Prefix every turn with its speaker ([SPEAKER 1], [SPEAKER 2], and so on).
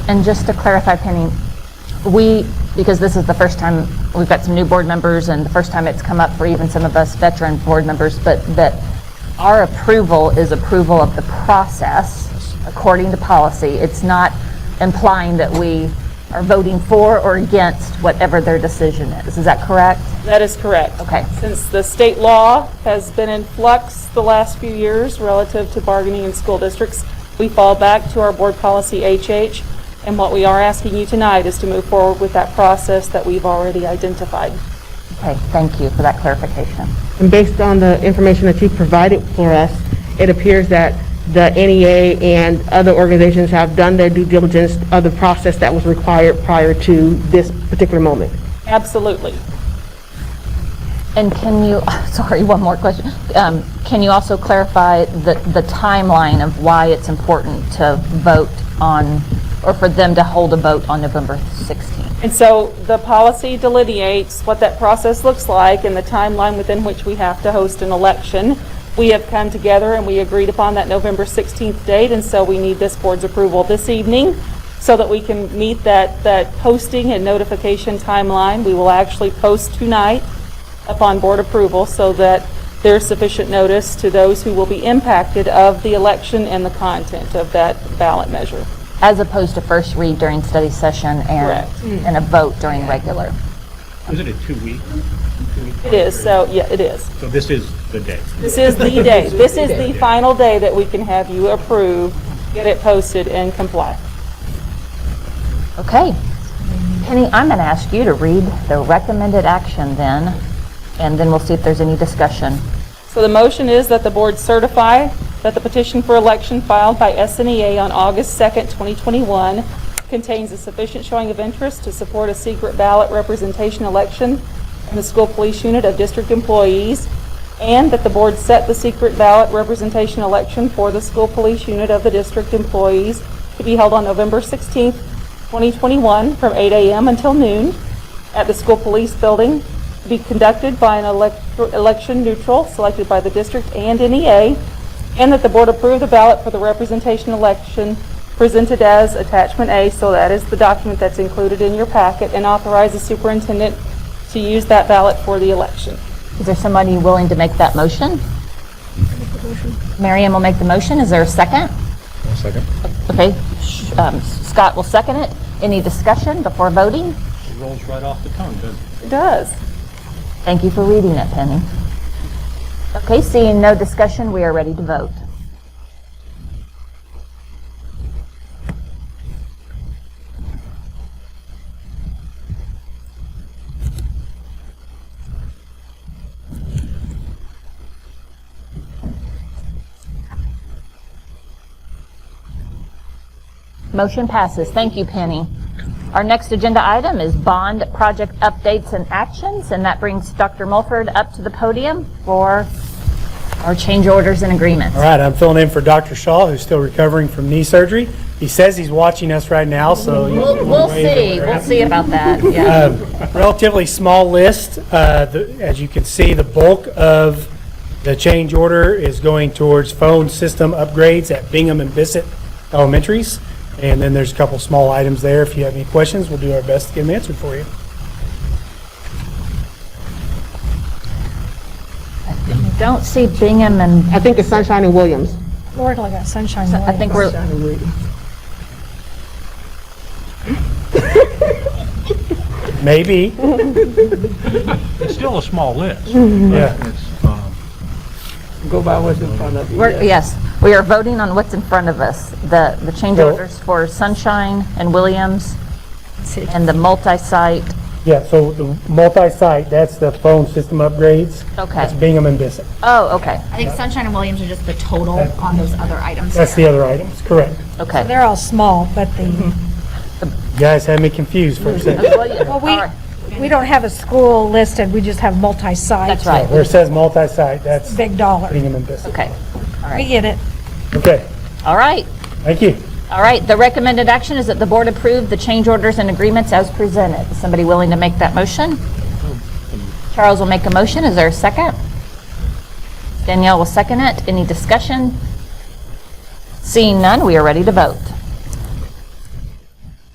[SPEAKER 1] And just to clarify, Penny, we, because this is the first time, we've got some new board members, and the first time it's come up for even some of us veteran board members, but that our approval is approval of the process according to policy. It's not implying that we are voting for or against whatever their decision is. Is that correct?
[SPEAKER 2] That is correct.
[SPEAKER 1] Okay.
[SPEAKER 2] Since the state law has been in flux the last few years relative to bargaining in school districts, we fall back to our board policy HH, and what we are asking you tonight is to move forward with that process that we've already identified.
[SPEAKER 1] Okay, thank you for that clarification.
[SPEAKER 3] And based on the information that you provided for us, it appears that the NEA and other organizations have done their due diligence of the process that was required prior to this particular moment.
[SPEAKER 2] Absolutely.
[SPEAKER 1] And can you, sorry, one more question. Um, Can you also clarify the the timeline of why it's important to vote on, or for them to hold a vote on November 16th?
[SPEAKER 2] And so the policy delineates what that process looks like and the timeline within which we have to host an election. We have come together and we agreed upon that November 16th date, and so we need this board's approval this evening so that we can meet that, that posting and notification timeline. We will actually post tonight upon board approval so that there's sufficient notice to those who will be impacted of the election and the content of that ballot measure.
[SPEAKER 1] As opposed to first read during study session and,
[SPEAKER 2] Correct.
[SPEAKER 1] and a vote during regular?
[SPEAKER 4] Isn't it two weeks?
[SPEAKER 2] It is, so, yeah, it is.
[SPEAKER 4] So this is the day.
[SPEAKER 2] This is the day, this is the final day that we can have you approve, get it posted and comply.
[SPEAKER 1] Okay. Penny, I'm going to ask you to read the recommended action then, and then we'll see if there's any discussion.
[SPEAKER 2] So the motion is that the board certify that the petition for election filed by SNEA on August 2nd, 2021 contains a sufficient showing of interest to support a secret ballot representation election in the school police unit of district employees, and that the board set the secret ballot representation election for the school police unit of the district employees to be held on November 16th, 2021, from 8 a.m. until noon at the school police building to be conducted by an elect- election neutral selected by the district and NEA, and that the board approve the ballot for the representation election presented as attachment A, so that is the document that's included in your packet, and authorize the superintendent to use that ballot for the election.
[SPEAKER 1] Is there somebody willing to make that motion? Mary Ann will make the motion. Is there a second?
[SPEAKER 4] second.
[SPEAKER 1] Okay, sh- um, Scott will second it. Any discussion before voting?
[SPEAKER 4] It rolls right off the tongue, doesn't it?
[SPEAKER 2] It does.
[SPEAKER 1] Thank you for reading it, Penny. Okay, seeing no discussion, we are ready to vote. Motion passes. Thank you, Penny. Our next agenda item is bond project updates and actions, and that brings Dr. Mulford up to the podium for our change orders and agreements.
[SPEAKER 5] All right, I'm filling in for Dr. Shaw, who's still recovering from knee surgery. He says he's watching us right now, so you-
[SPEAKER 1] We'll we'll see, we'll see about that, yeah.
[SPEAKER 5] relatively small list. Uh, the- As you can see, the bulk of the change order is going towards phone system upgrades at Bingham and Bissett Elementaries. And then there's a couple small items there. If you have any questions, we'll do our best to get them answered for you.
[SPEAKER 1] Don't see Bingham and,
[SPEAKER 3] I think it's Sunshine and Williams.
[SPEAKER 6] Lord, like that sunshine.
[SPEAKER 1] I think we're,
[SPEAKER 5] Maybe,
[SPEAKER 4] It's still a small list.
[SPEAKER 5] yeah.
[SPEAKER 4] It's, um,
[SPEAKER 1] we're, yes, we are voting on what's in front of us. The, the change
[SPEAKER 5] Well-
[SPEAKER 1] orders for Sunshine and Williams and the multi-site.
[SPEAKER 5] Yeah, so the multi-site, that's the phone system upgrades.
[SPEAKER 1] Okay.
[SPEAKER 5] That's Bingham and Bissett.
[SPEAKER 1] Oh, okay,
[SPEAKER 7] I think Sunshine and Williams are just the total on those other items.
[SPEAKER 5] That's the other items, correct.
[SPEAKER 1] okay.
[SPEAKER 6] They're all small, but the,
[SPEAKER 5] You guys had me confused for a second.
[SPEAKER 1] Well,
[SPEAKER 6] we- we don't have a school listed, we just have multi-site.
[SPEAKER 1] That's right,
[SPEAKER 5] Where it says multi-site, that's
[SPEAKER 6] Big dollar.
[SPEAKER 5] Bingham and Bissell.
[SPEAKER 1] okay,
[SPEAKER 6] We get it.
[SPEAKER 5] Okay,
[SPEAKER 1] all right.
[SPEAKER 5] thank you.
[SPEAKER 1] All right, the recommended action is that the board approve the change orders and agreements as presented. Is Somebody willing to make that motion? Charles will make a motion. Is there a second? Danielle will second it. Any discussion? Seeing none, we are ready to vote.